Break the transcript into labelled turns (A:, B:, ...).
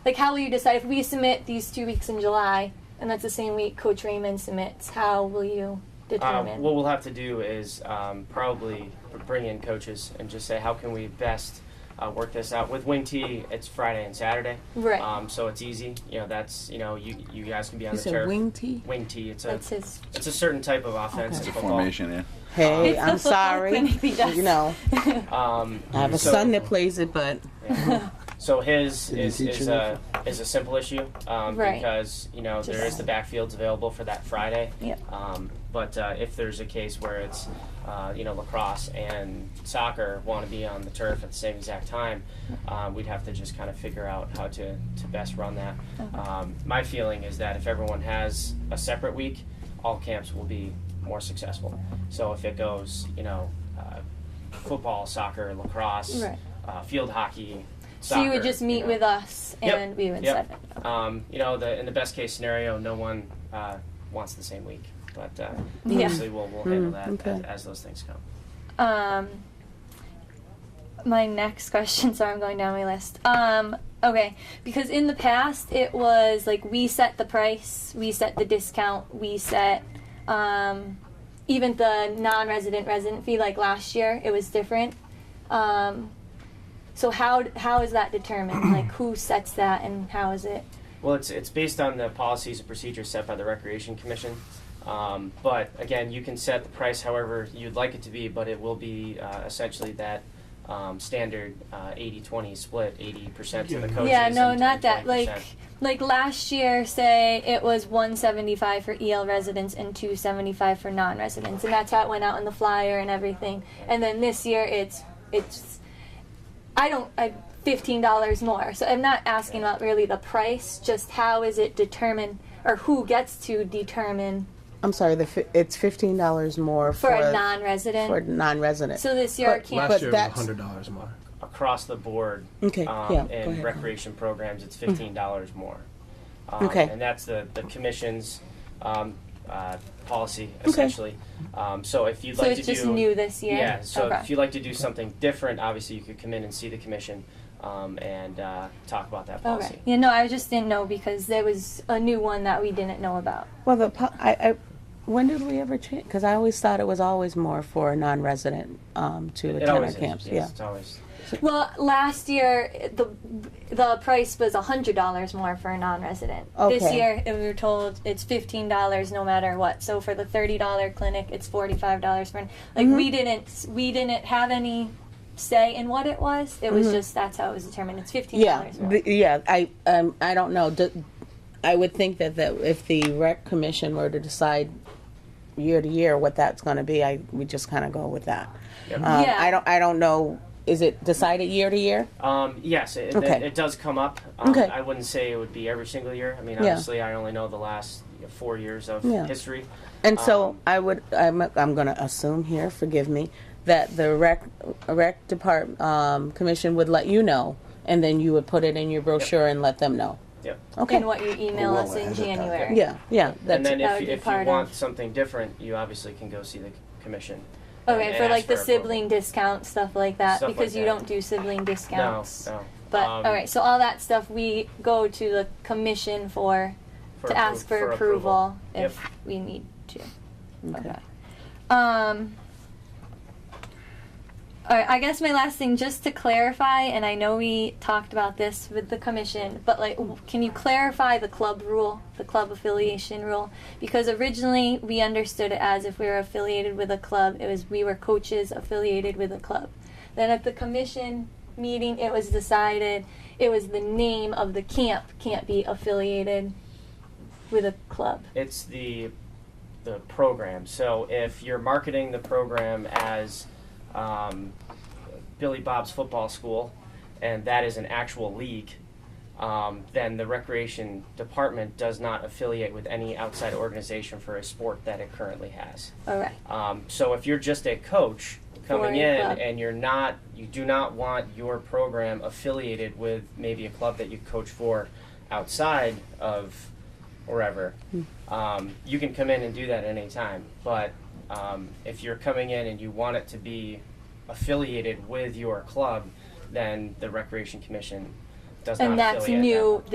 A: Like, how will you decide if we submit these two weeks in July, and that's the same week Coach Raymond submits? How will you
B: Um,
A: determine?
B: what we'll have to do is um, probably bring in coaches and just say how can we best uh, work this out. With Wing T, it's Friday and Saturday,
A: right.
B: um, so it's easy. You know, that's you know you you guys can be on
C: You
B: the turf.
C: said wing tee?
B: Wing T, it's a
A: that's his.
B: it's a certain type of offense
C: Okay.
B: in
D: It's a
B: football.
D: formation, yeah.
C: Hey,
A: It's the
C: I'm
A: football
C: sorry.
A: clinic he does.
C: You know,
B: Um,
C: I have a
B: so-
C: son that plays it, but
B: Yeah. So his
E: Did you
B: is,
E: teach
B: is
E: him
B: a is a simple issue um,
A: Right.
B: because you know there is
A: Just-
B: the backfields available for that Friday.
A: Yep.
B: Um, but uh, if there's a case where it's uh, you know lacrosse and soccer want to be on the turf at the same exact time, uh, we'd have to just kind of figure out how to, to best run that. Um, my feeling is that if everyone has a separate week, all camps will be more successful. So if it goes you know uh, football, soccer, lacrosse
A: Right.
B: uh, field hockey.
A: so you
B: soccer,
A: would just meet
B: know.
A: with us,
B: Yep.
A: and we would
B: Yep.
A: set it.
B: Um, you know, the, in the best case scenario, no one uh, wants the same week, but uh,
A: Yeah.
B: obviously we'll, we'll handle
C: Mm,
B: that
C: okay.
B: as, as those things come.
A: Um, my next question. Sorry, I'm going down my list. Um, okay, because in the past it was like we set the price, we set the discount, we set um, even the non-resident resident fee. Like last year, it was different. Um, so how how is that determined? like who sets that, and how is it?
B: Well, it's it's based on the policies and procedures set by the Recreation Commission. Um, but again, you can set the price however you'd like it to be, but it will be uh, essentially that um, standard uh, 80-20 split, 80% to the coaches.
A: yeah, no,
B: and-
A: not
B: and
A: that. Like
B: 20%.
A: like last year, say it was 175 for EL residents and 275 for non-residents, and that's how it went out in the flyer and everything. And then this year, it's it's I don't I fifteen dollars more. So I'm not asking about really the price, just how is it determined or who gets to determine
C: I'm sorry. The fi- it's fifteen dollars more
A: for
C: for
A: a non-resident.
C: for non-resident.
A: so this year, it
C: But-
A: can't.
C: but-
E: Last year it was
C: that's-
E: hundred dollars more.
B: across the board
C: okay,
B: um,
C: yeah. go
B: in
C: ahead. Mm-hmm.
B: recreation programs, it's fifteen dollars more. Um,
C: Okay.
B: And that's the, the commission's um, uh, policy essentially. Um, so if you'd
A: so
B: like
A: it's
B: to
A: just
B: do,
A: new this year.
B: yeah. So
A: okay.
B: if you'd like to do something different, obviously you could come in and see the commission um, and uh, talk about that policy.
A: Okay. Yeah, no, I just didn't know because there was a new one that we didn't know about.
C: Well, the po- I, I when did we ever change? Because I always thought it was always more for a non-resident um, to
B: It
C: attend our
B: always
C: camps.
B: is. Yes, It's always.
A: Well, last year the the price was hundred dollars more for a non-resident. This
C: Okay.
A: year we were told it's fifteen dollars no matter what. So for the thirty dollar clinic, it's forty five dollars for. Like
C: Mm-hmm.
A: we didn't we didn't have any say in what it was. It was just that's how it was determined. It's fifteen
C: Mm-hmm. Yeah,
A: dollars.
C: the, yeah. I um, I don't know. D- I would think that, that if the rec commission were to decide year to year what that's going to be, I would just kind of go with that.
B: Yep.
C: Um,
A: Yeah.
C: I don't. I don't know. Is it decided year to year?
B: Um, yes, it,
C: Okay.
B: it, it does come up. Um,
C: Okay.
B: I wouldn't say it would be every single year. I mean,
C: Yeah.
B: obviously, I only know the last four years of
C: Yeah.
B: history.
C: And so
B: Um,
C: I would. I'm. I'm going to assume here. Forgive me. That the rec rec department um, commission would let you know, and then you would put it in your brochure and let them know.
B: Yep.
C: Okay.
A: In what you email
D: Well,
A: us in
D: as a-
A: January.
C: Yeah. Yeah. That's
B: and then
A: that
B: if,
A: would be
B: if
A: part
B: you
A: of-
B: want something different, you obviously can go see the commission. and-
A: Okay,
B: and
A: for
B: ask
A: like the
B: approval.
A: sibling discount stuff like that
B: Stuff like
A: because you
B: that.
A: don't do sibling
B: No,
A: discounts.
B: no.
A: But
B: Um,
A: all right, so all that stuff we go to the commission for,
B: for
A: to
B: appro-
A: ask for, approval,
B: Yep.
A: if we need to.
C: okay.
A: Um. All right, I guess my last thing, just to clarify, and I know we talked about this with the commission, but like, w- can you clarify the club rule, the club affiliation rule? Because originally we understood it as if we were affiliated with a club, it was we were coaches affiliated with a club. Then at the commission meeting, it was decided it was the name of the camp can't be affiliated with a club.
B: It's the the program. So if you're marketing the program as um, Billy Bob's Football School, and that is an actual league, um, then the recreation department does not affiliate with any outside organization for a sport that it currently has.
A: All right.
B: Um, so if you're just a coach coming
A: Or a
B: in
A: club.
B: and you're not, you do not want your program affiliated with maybe a club that you coach for outside of wherever,
A: Hmm.
B: um, you can come in and do that at any time. But um, if you're coming in and you want it to be affiliated with your club, then the Recreation Commission does not
A: And that's
B: affiliate that.
A: new